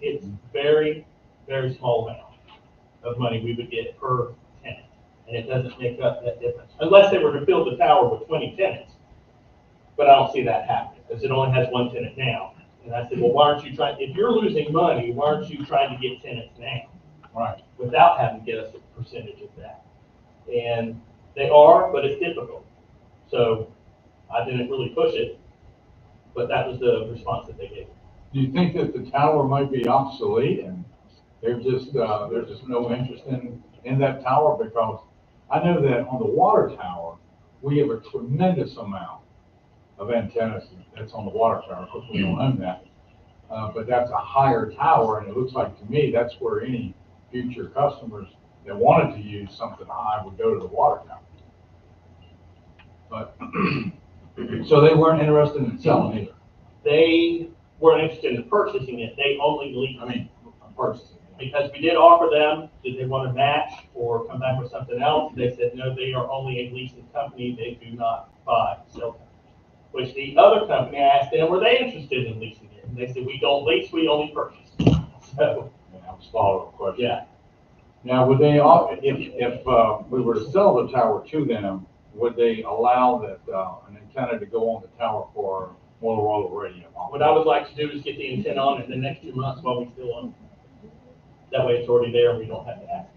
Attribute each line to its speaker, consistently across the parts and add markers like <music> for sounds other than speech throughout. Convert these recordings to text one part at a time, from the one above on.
Speaker 1: it's very, very small amount of money we would get per tenant. And it doesn't make up that difference, unless they were to fill the tower with twenty tenants. But I don't see that happening, because it only has one tenant now. And I said, well, why aren't you trying, if you're losing money, why aren't you trying to get tenants now?
Speaker 2: Right.
Speaker 1: Without having to get us a percentage of that. And they are, but it's difficult. So I didn't really push it, but that was the response that they gave.
Speaker 2: Do you think that the tower might be obsolete and they're just, uh, there's just no interest in, in that tower because I know that on the water tower, we have a tremendous amount of antennas that's on the water tower. Of course, we don't own that. Uh, but that's a higher tower and it looks like to me, that's where any future customers that wanted to use something high would go to the water tower. But, <clears throat> so they weren't interested in selling either.
Speaker 1: They weren't interested in purchasing it, they only leased.
Speaker 2: I mean, purchasing.
Speaker 1: Because we did offer them, did they want to match or come back with something else? They said, no, they are only a leasing company, they do not buy, so. Which the other company, I asked them, were they interested in leasing it? And they said, we don't lease, we only purchase. <laughs> So,
Speaker 2: And that was follow-up question.
Speaker 1: yeah,
Speaker 2: Now, would they, all- if, if uh, we were to sell the tower to them, would they allow that, uh, an antenna to go on the tower for Motorola radio?
Speaker 1: what I would like to do is get the intent on in the next two months while we still own it. That way it's already there, and we don't have to ask.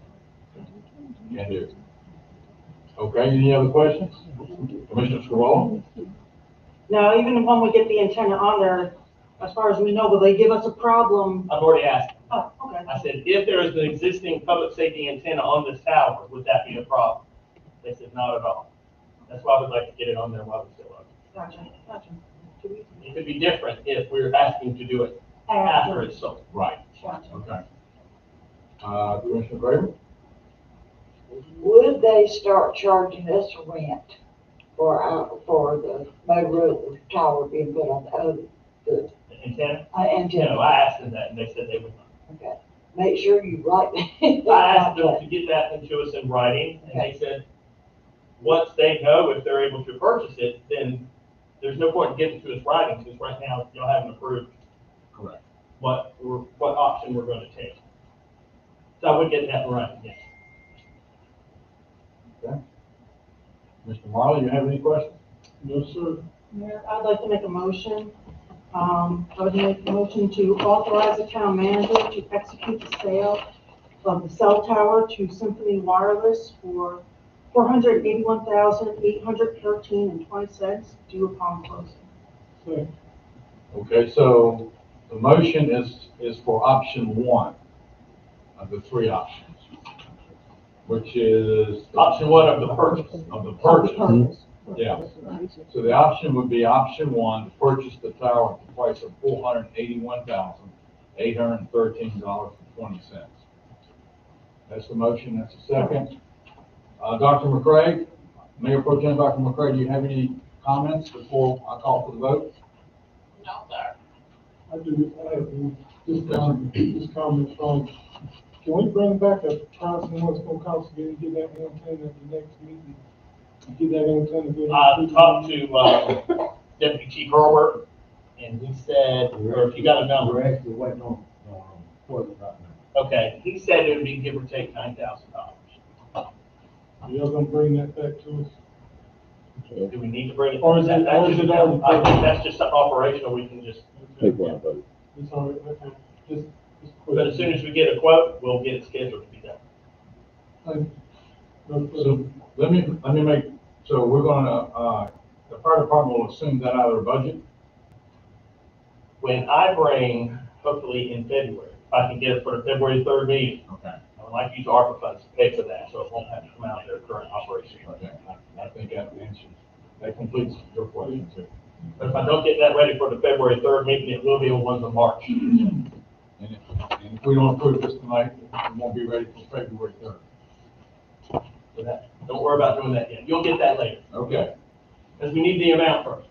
Speaker 2: Can do. Okay, any other questions? Commissioner Scarlett?
Speaker 3: Now, even when we get the antenna on there, as far as we know, will they give us a problem?
Speaker 1: I've already asked,
Speaker 3: Oh, okay.
Speaker 1: I said, if there is an existing public safety antenna on this tower, would that be a problem? They said, not at all. That's why I would like to get it on there while we still own it.
Speaker 3: Gotcha, gotcha. Do we-
Speaker 1: It could be different if we're asking to do it after it's sold.
Speaker 2: Right,
Speaker 3: Gotcha.
Speaker 2: okay. Uh, Commissioner Graber?
Speaker 4: Would they start charging us rent for our, for the Motorola tower being put on the other, the
Speaker 1: The Antenna,
Speaker 4: uh,
Speaker 1: you know,
Speaker 4: antenna?
Speaker 1: I asked them that and they said they would not.
Speaker 4: Okay. Make sure you write. <laughs>
Speaker 1: I asked them to get that into us in writing and they said, once they know if they're able to purchase it, then there's no point in getting to us writing because right now y'all haven't approved
Speaker 2: Correct.
Speaker 1: what, we're what option we're going to take. So I would get that in writing, yes.
Speaker 2: Mr. Marley, you have any questions?
Speaker 5: No, sir.
Speaker 3: Mayor, I'd like to make a motion. Um, I would make a motion to authorize the town manager to execute the sale of the cell tower to Symphony Wireless for four hundred eighty-one thousand, eight hundred thirteen and twenty cents due upon closing.
Speaker 5: Second.
Speaker 2: Okay, so the motion is, is for option one of the three options, which is.
Speaker 1: Option one of the purchase.
Speaker 2: Of the purchase. Yeah. So the option would be option one, to purchase the tower at the price of four hundred and eighty-one thousand, eight hundred and thirteen dollars and twenty cents. That's the motion, that's the second. Uh, Dr. McCray, Mayor Pro Tem Dr. McCray, do you have any comments before I call for the vote?
Speaker 5: I do, I have one. this comment, this comment from, can we bring back a thousand what's gonna cost to get, get that antenna at the next meeting? Get that antenna. get it-
Speaker 1: I talked to, uh, Deputy Chief Herbert, and he said, or if you got a number,
Speaker 6: We're actually waiting on,
Speaker 2: um,
Speaker 6: on, for the right now.
Speaker 1: okay, he said it would be give or take nine thousand dollars.
Speaker 5: Y'all gonna bring that back to us?
Speaker 1: Do we need to bring it?
Speaker 5: Or is it- or is it all-
Speaker 1: I think that's just something operational, we can just,
Speaker 7: People are voting.
Speaker 5: It's all right, okay, just, just. quick.
Speaker 1: but as soon as we get a quote, we'll get it scheduled to be done.
Speaker 5: Like, no,
Speaker 2: So let me, let me make, so we're gonna, uh, the fire department will assume that out of their budget?
Speaker 1: When I bring, hopefully in February, if I can get it for the February third meeting,
Speaker 2: Okay.
Speaker 1: I would like to use ARPA funds to pay for that, so it won't have to come out of their current operation.
Speaker 2: Okay, I I think that answers, that completes your question too.
Speaker 1: But if I don't get that ready for the February third meeting, it will be on one of March.
Speaker 2: And if, and if we don't approve this tonight, it won't be ready for February third.
Speaker 1: So that, don't worry about doing that yet. You'll get that later,
Speaker 2: Okay,
Speaker 1: because we need the amount first.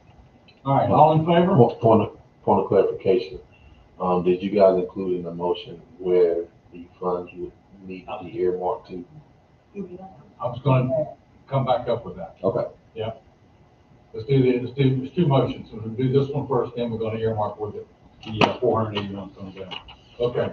Speaker 2: all right, all in favor?
Speaker 7: Point, point of, point of clarification, um, did you guys include in the motion where the funds would need to be earmarked to?
Speaker 2: I was gonna come back up with that.
Speaker 7: Okay.
Speaker 2: Yeah. Let's do the, let's do, there's two motions, so we'll do this one first, then we're gonna earmark with it, the four hundred uh, eighty-one comes down. Okay.